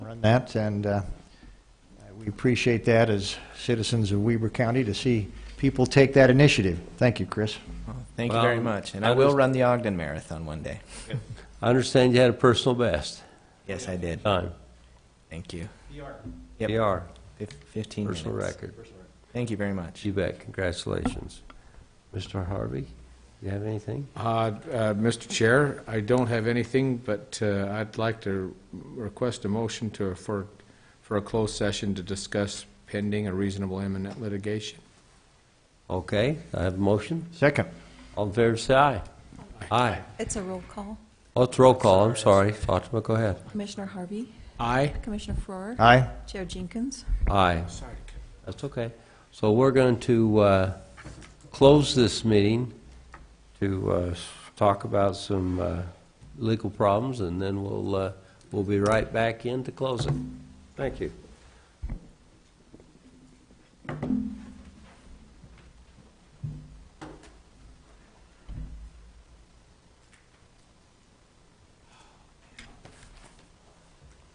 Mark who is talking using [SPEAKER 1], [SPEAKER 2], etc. [SPEAKER 1] on that, and uh, we appreciate that as citizens of Weber County to see people take that initiative. Thank you, Chris.
[SPEAKER 2] Thank you very
[SPEAKER 3] Well,
[SPEAKER 2] much. And
[SPEAKER 3] I
[SPEAKER 2] I will
[SPEAKER 3] just-
[SPEAKER 2] run the Ogden Marathon one day.
[SPEAKER 3] I understand you had a personal best
[SPEAKER 2] Yes, I did.
[SPEAKER 3] time.
[SPEAKER 2] Thank you. Yep.
[SPEAKER 3] PR,
[SPEAKER 2] Fif- 15 minutes.
[SPEAKER 3] personal record.
[SPEAKER 2] Thank you very much.
[SPEAKER 3] You bet, congratulations. Mr. Harvey, you have anything?
[SPEAKER 4] Uh, uh, Mr. Chair, I don't have anything, but uh, I'd like to request a motion to, for, for a closed session to discuss pending or reasonable imminent litigation.
[SPEAKER 3] Okay, I have a motion.
[SPEAKER 1] Second.
[SPEAKER 3] All in favor, say aye. Aye.
[SPEAKER 5] It's a roll call.
[SPEAKER 3] Oh, it's roll call, I'm sorry. Fatima, go ahead.
[SPEAKER 5] Commissioner Harvey,
[SPEAKER 4] Aye?
[SPEAKER 5] Commissioner Farrar,
[SPEAKER 1] Aye.
[SPEAKER 5] Chair Jenkins.
[SPEAKER 3] Aye. That's okay. So we're going to uh, close this meeting to uh, s- talk about some uh, legal problems, and then we'll, uh, we'll be right back in to close it. Thank you.